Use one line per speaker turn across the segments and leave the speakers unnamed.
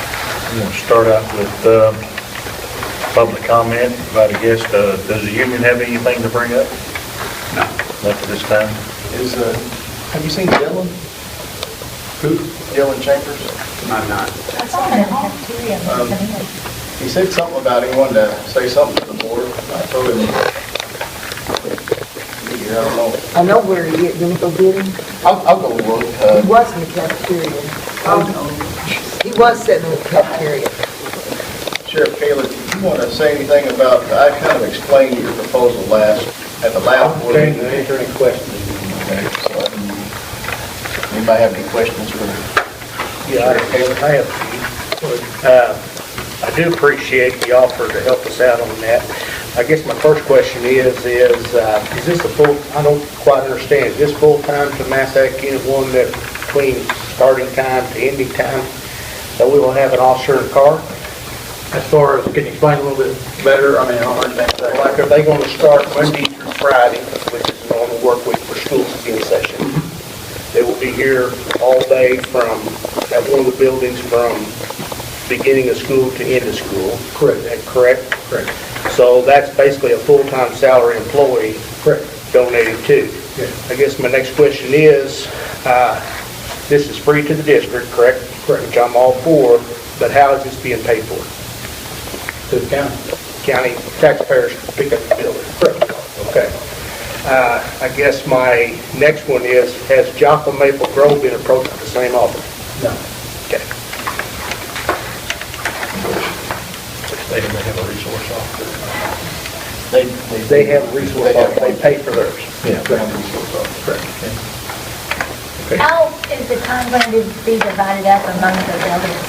I'm going to start out with uh, public comment, invite a guest. Uh, Does the union have anything to bring up? No. Not at this time?
Is, uh, have you seen Dylan? Who? Dylan Chambers? Um,
I'm not.
I saw him in the cafeteria. and he was in it.
He said something about he wanted to say something to the board. I told him. I don't know.
I know where he is, did we go get him?
I'll, I'll go look. uh,
He was in the cafeteria. He was sitting in the cafeteria.
Sheriff Taylor, do you want to say anything about, I kind of explained your proposal last, at the last board meeting.
answer any questions.
Okay, so, um, Anybody have any questions for
Yeah,
Sheriff Taylor?
I have a few. Uh, I do appreciate the offer to help us out on that. I guess my first question is, is, uh, is this a full, I don't quite understand, is this full-time to Massac Unit 1 that between starting time to ending time, that we will have an officer in the car?
As far as, can you explain a little bit better, I mean, I don't understand that.
Like, are they going to start Monday through Friday, which is a normal work week for schools to be in session? They will be here all day from, at one of the buildings from beginning of school to end of school. Correct. Is that correct?
Correct.
So that's basically a full-time salary employee
Correct.
donated to.
Yeah.
I guess my next question is, uh, this is free to the district, correct?
Correct.
Which I'm all for, but how is this being paid for?
To the county.
county taxpayers pick up the bill. Okay. Uh, I guess my next one is, has Joppa Maple Grove been approached with the same offer?
No.
Okay.
They didn't have a resource officer.
They have a resource officer, they pay for theirs.
Yeah, they have a resource officer.
How is the time going to be divided up among the buildings?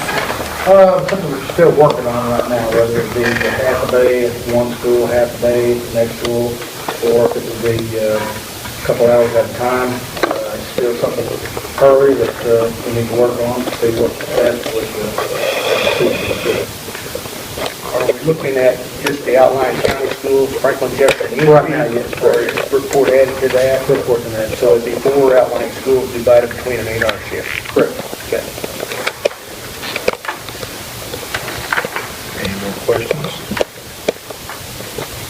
Uh, something we're still working on right now, whether it be the half a day at one school, half a day at the next school, or if it would be uh, a couple hours at a time. Uh, It's still something early that uh, we need to work on, see what that's with.
Are we looking at just the outlying county schools, Franklin Jefferson?
Right now, yes.
Or report added to that? Report to that. So it'd be four outlying schools divided between an eight-hour shift?
Correct.
Okay.
Any more questions?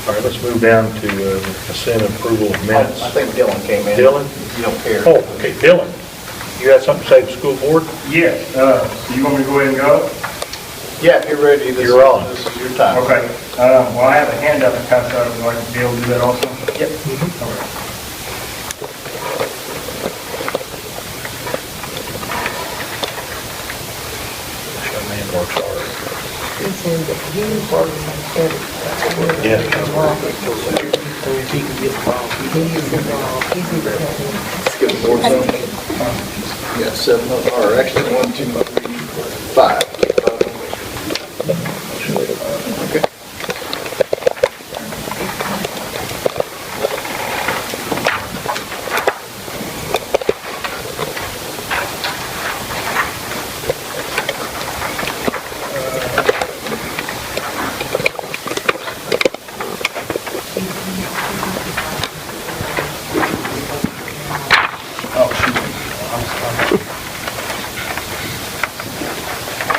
All right, let's move down to
uh,
consent approval of
minutes.
I think Dylan came in.
Dylan?
You don't care.
Oh, okay, Dylan, you had something to say to the school board?
Yes, uh, you want me to go ahead and go?
Yeah, if you're ready, this
You're on.
this is your
Uh-huh.
time.
Okay, uh, well, I have a handout that comes out, would you like to be able to do that also?
Yep.
Okay.
Man works hard.
He said that he works on everything.
Yeah.
He's involved, he's involved.
Let's get board Yeah, seven, of- or actually, one, two, three, four, five. Okay.
Oh,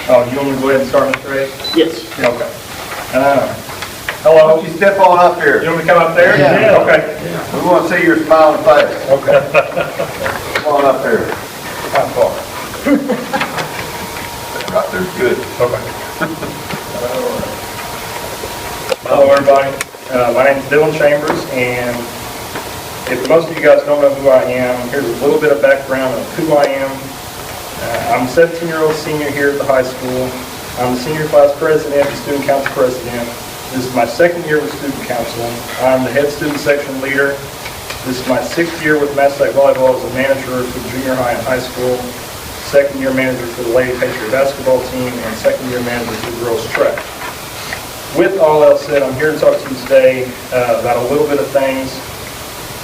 shoot. I'm sorry. Oh, you want me to go ahead and start, Mr. Ray?
Yes.
Yeah, Okay. Uh, Hello,
Why don't you step on up
you
here?
want me to come up there?
Yeah.
Okay.
We want to see your smiling face.
Okay.
Come on up here.
How far?
Right there's good.
Okay. Hello, everybody. Uh, My name's Dylan Chambers, and if most of you guys don't know who I am, here's a little bit of background of who I am. Uh, I'm a 17-year-old senior here at the high school. I'm the senior class president, and student council president. This is my second year with student council. I'm the head student section leader. This is my sixth year with Massac Volleyball as a manager for junior high and high school, second year manager for the Lady Patriot basketball team, and second year manager for the girls track. With all else said, I'm here to talk to you today uh, about a little bit of things.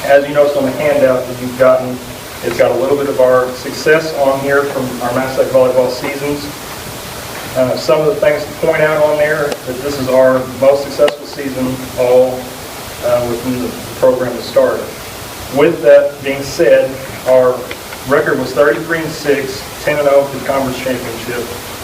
As you noticed on the handout that you've gotten, it's got a little bit of our success on here from our Massac volleyball seasons. Uh, Some of the things to point out on there, that this is our most successful season all uh, within the program that started. With that being said, our record was 33 and 6, 10 and 0 for the oh conference championship.